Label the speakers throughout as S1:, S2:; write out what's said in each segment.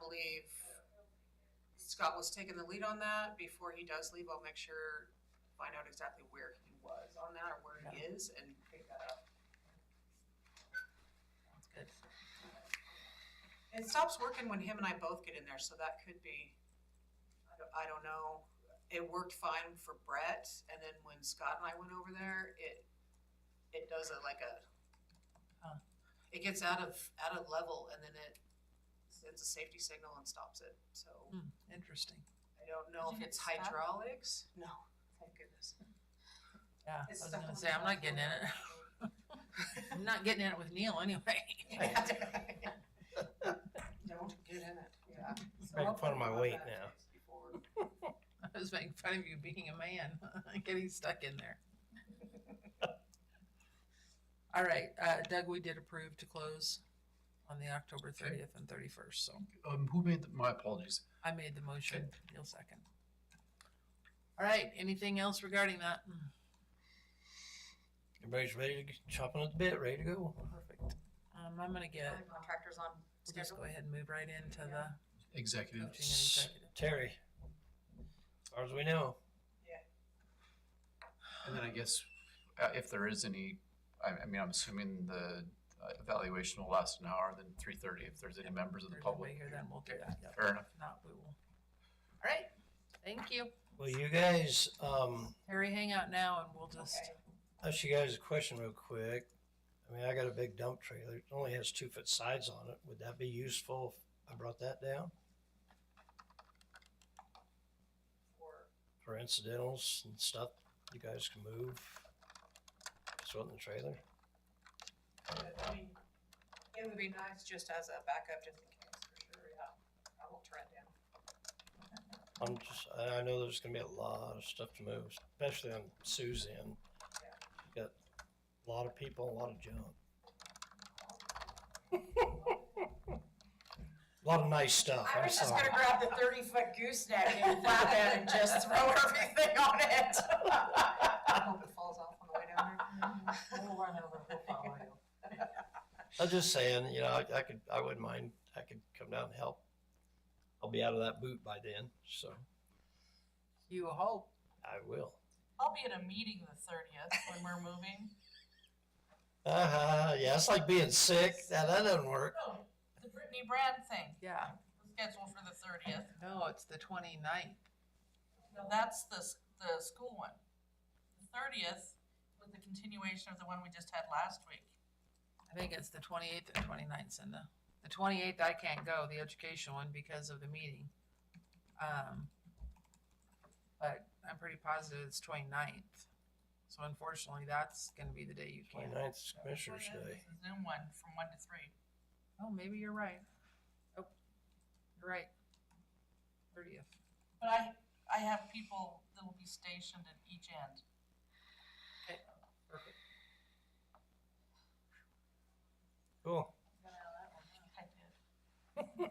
S1: believe Scott was taking the lead on that. Before he does leave, I'll make sure, find out exactly where he was on that or where he is and pick that up.
S2: Sounds good.
S1: It stops working when him and I both get in there, so that could be, I don't, I don't know. It worked fine for Brett, and then when Scott and I went over there, it, it does a, like a,
S2: Huh.
S1: it gets out of, out of level, and then it sends a safety signal and stops it, so
S2: Interesting.
S1: I don't know
S3: Did
S1: if
S3: you
S1: it's
S3: get stuck?
S1: hydraulics. No, thank goodness.
S2: Yeah, I
S1: It's
S2: was
S1: stuck on
S2: gonna
S1: the
S2: say, I'm not getting in it. I'm not getting in it with Neil anyway.
S1: Don't get in it, yeah. So
S4: Making
S1: I'll
S4: fun of my
S1: put
S4: weight
S1: that
S4: now.
S1: before.
S2: I was making fun of you being a man, getting stuck in there. All right, uh, Doug, we did approve to close on the October thirtieth and thirty-first, so
S5: Um, who made, the- my apologies.
S2: I made the motion. Neil second. All right, anything else regarding that? Hmm,
S4: Everybody's ready to chop on the bit, ready to go.
S2: Perfect. Um, I'm gonna
S1: uh,
S2: get,
S3: Contractors on
S2: we'll just go
S3: schedule.
S2: ahead and move right into the coaching and
S5: Executive.
S2: executive.
S4: Terry, as far as we know,
S5: And then I guess uh, if there is any, I, I mean, I'm assuming the uh, evaluation will last an hour, then three thirty if there's any members of the
S2: There's nobody
S5: public.
S2: here, then we'll do that. Yep.
S5: Fair enough.
S2: If not, we will. All right, thank you.
S4: well, you guys, um,
S2: Harry, hang out now and we'll just,
S4: ask you guys a question real quick. I mean, I got a big dump trailer. It only has two foot sides on it. Would that be useful if I brought that down
S1: Or
S4: for incidentals and stuff? You guys can move. Just in the trailer.
S1: I mean, it would be nice just as a backup, just in case, for sure, yeah. I will turn it down.
S4: I'm just, I I know there's gonna be a lot of stuff to move, especially on Suzanne.
S1: Yeah.
S4: Got a lot of people, a lot of junk. A lot of nice stuff,
S3: I
S4: I'm
S3: was just gonna
S4: sorry.
S3: grab the thirty foot gooseneck and flap it and just throw everything on it.
S1: I hope it falls off on the way down there.
S3: We'll run over, we'll follow you.
S4: I'm just saying, you know, I I could, I wouldn't mind, I could come down and help. I'll be out of that boot by then, so
S2: you hope.
S4: I will.
S6: I'll be at a meeting the thirtieth when we're moving.
S4: Uh-huh, yeah, it's like being sick, that, that doesn't work.
S6: Oh, the Brittany Brand thing,
S2: Yeah.
S6: scheduled for the thirtieth.
S2: No, it's the 29th.
S6: No, that's the, s- the school one. The thirtieth was the continuation of the one we just had last week.
S2: I think it's the 28th and 29th, Cinda. The 28th, I can't go, the education one, because of the meeting. Um, But I'm pretty positive it's 29th. So unfortunately, that's going to be the day you can't.
S4: Twenty-ninth is Commissioner's Day.
S6: The Zoom one from one to three.
S2: Oh, maybe you're right. Oh, you're right. 30th.
S6: But I, I have people that will be stationed at each end.
S2: Perfect.
S4: Cool.
S6: I did.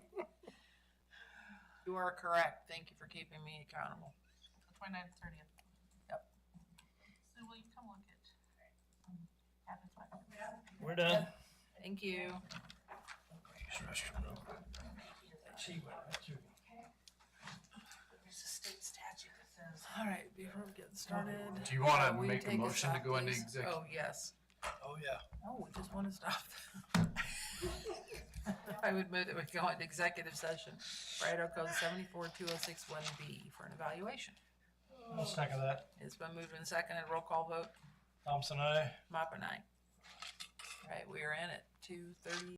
S2: You are correct. Thank you for keeping me accountable.
S6: The twenty-ninth, thirtieth.
S2: Yep.
S6: So will you come look at? Advertising.
S4: We're done.
S2: Thank you.
S6: There's a state statute that says
S2: All right, before we get started.
S5: Do you want
S2: Will you
S5: to make a
S2: take us
S5: motion to
S2: off,
S5: go into
S2: please?
S5: executive?
S2: Oh, yes.
S4: Oh, yeah.
S2: Oh, we just want to stop. I would move that we go into executive session for Idaho Code seventy-four two oh six one B for an evaluation.
S3: Oh.
S4: I'll second that.
S2: It's been moved and seconded. Roll call vote.
S4: Thompson, eh? aye.
S2: Mop and I. All right, we are in at two thirty.